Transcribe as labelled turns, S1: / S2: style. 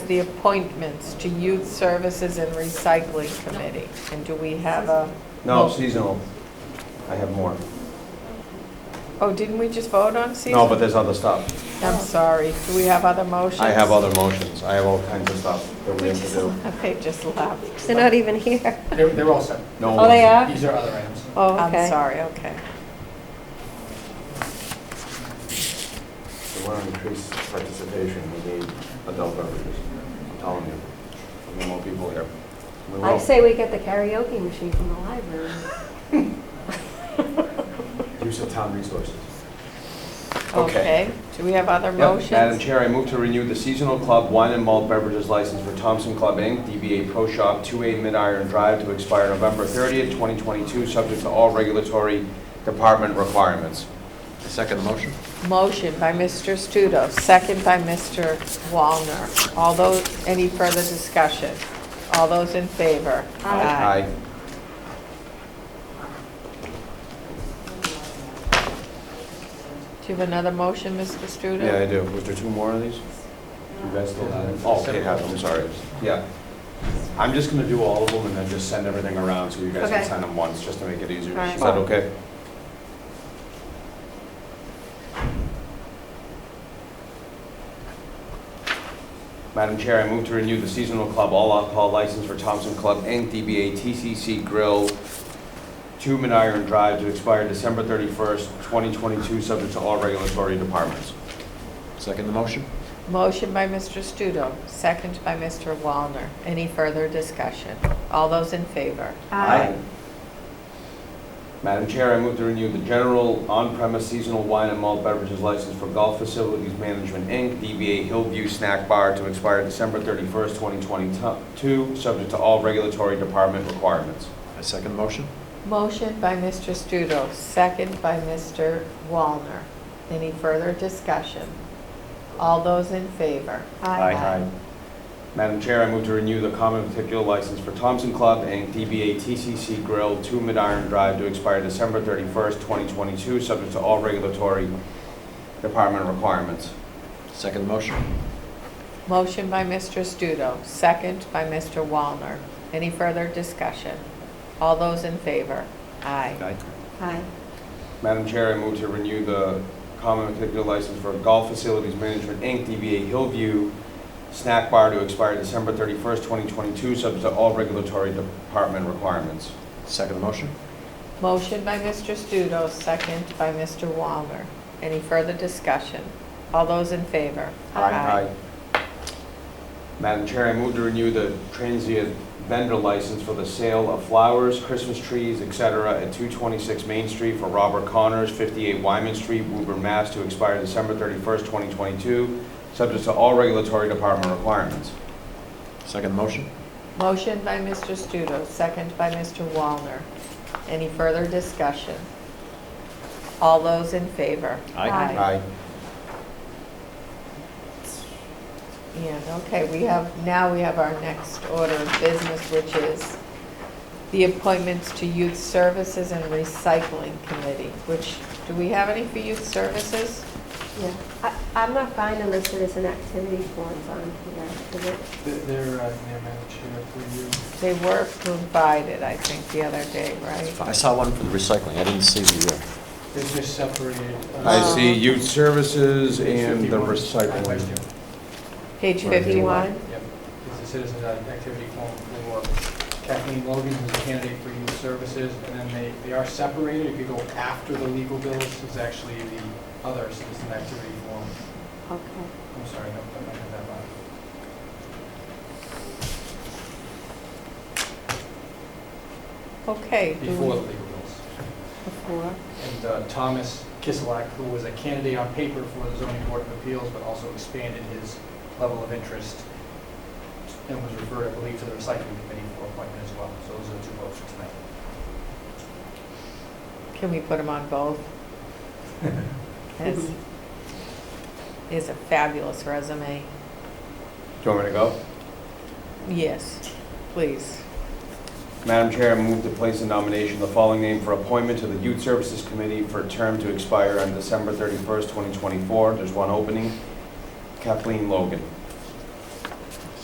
S1: the appointments to Youth Services and Recycling Committee? And do we have a?
S2: No, seasonal. I have more.
S1: Oh, didn't we just vote on seasonal?
S2: No, but there's other stuff.
S1: I'm sorry. Do we have other motions?
S2: I have other motions. I have all kinds of stuff that we have to do.
S1: They just left.
S3: They're not even here.
S4: They're, they're all set.
S2: No
S3: Oh, they
S2: one's-
S3: are?
S4: These are other items.
S3: Oh,
S1: I'm
S3: okay.
S1: sorry, okay.
S2: If we want to increase participation, we need adult beverages. I'm telling you. We need more people here. We
S3: I
S2: will.
S3: say we get the karaoke machine from the library.
S2: Use of town resources. Okay.
S1: Okay. Do we have other
S2: Yep. Madam
S1: motions?
S2: Chair, I move to renew the seasonal club wine and malt beverages license for Thompson Club Inc., DBA Pro Shop, 2A Mid Iron Drive, to expire November 30th, 2022, subject to all regulatory department requirements.
S5: Second motion?
S1: Motion by Mr. Studo, second by Mr. Wallner. All those, any further discussion? All those in favor?
S2: Aye.
S1: Do you have another motion, Mr. Studo?
S2: Yeah, I do. Was there two more of these? You guys still have it? Oh, Kate has, it. I'm sorry. Yeah. I'm just gonna do all of them and then just send everything around so you guys can
S3: Okay.
S2: sign them once, just to make it easier.
S3: Alright.
S2: Is that okay? Madam Chair, I move to renew the seasonal club all alcohol license for Thompson Club Inc., DBA TCC Grill, 2 Miniron Drive, to expire December 31st, 2022, subject to all regulatory departments.
S5: Second the motion?
S1: Motion by Mr. Studo, second by Mr. Wallner. Any further discussion? All those in favor?
S3: Aye.
S2: Madam Chair, I move to renew the general on-premise seasonal wine and malt beverages license for Golf Facilities Management, Inc., DBA Hillview Snack Bar to expire December 31st, 2022, subject to all regulatory department requirements.
S5: I second the motion?
S1: Motion by Mr. Studo, second by Mr. Wallner. Any further discussion? All those in favor?
S3: Aye.
S2: Madam Chair, I move to renew the common particular license for Thompson Club, Inc., DBA TCC Grill, 2 Midiron Drive to expire December 31st, 2022, subject to all regulatory department requirements.
S5: Second the motion?
S1: Motion by Mr. Studo, second by Mr. Wallner. Any further discussion? All those in favor? Aye.
S3: Aye.
S2: Madam Chair, I move to renew the common particular license for Golf Facilities Management, Inc., DBA Hillview Snack Bar to expire December 31st, 2022, subject to all regulatory department requirements.
S5: Second the motion?
S1: Motion by Mr. Studo, second by Mr. Wallner. Any further discussion? All those in favor?
S2: Aye. Madam Chair, I move to renew the transient vendor license for the sale of flowers, Christmas trees, et cetera, at 226 Main Street for Robert Connors, 58 Wyman Street, Woburn, Mass., to expire December 31st, 2022, subject to all regulatory department requirements.
S5: Second the motion?
S1: Motion by Mr. Studo, second by Mr. Wallner. Any further discussion? All those in favor?
S3: Aye.
S1: And, okay, we have, now we have our next order of business, which is the appointments to Youth Services and Recycling Committee, which, do we have any for Youth Services?
S3: Yeah. I- I'm not finding the citizen activity forms on here. Is it?
S4: They're, they're, uh, they're Madam Chair, for you.
S1: They were provided, I think, the other day, right?
S5: I saw one for the recycling, I didn't see the, uh,
S4: They're just separated. uh,
S2: I
S3: Um,
S2: see youth services and the
S4: 51. Right, right
S2: recycling.
S4: there.
S1: Page
S2: Where they were.
S1: 51?
S4: Yep, it's the Citizens uh, Activity Forum for Kathleen Logan, who's a candidate for youth services, and then they, they are separated, if you go after the legal bills, is actually the other Citizen Activity Forum.
S3: Okay.
S4: I'm sorry, no, I might have that wrong.
S1: Okay. do we-
S4: Before the legal bills.
S1: Before.
S4: And uh, Thomas Kiselak, who was a candidate on paper for the zoning board of appeals, but also expanded his level of interest and was referred, I believe, to the recycling committee for appointment as well. So those are the two votes for tonight.
S1: Can we put them on both? This is a fabulous resume.
S2: Do you want me to go?
S1: Yes, please.
S2: Madam Chair, I move to place in nomination the following name for appointment to the Youth Services Committee for a term to expire on December 31st, 2024. There's one opening. Kathleen Logan.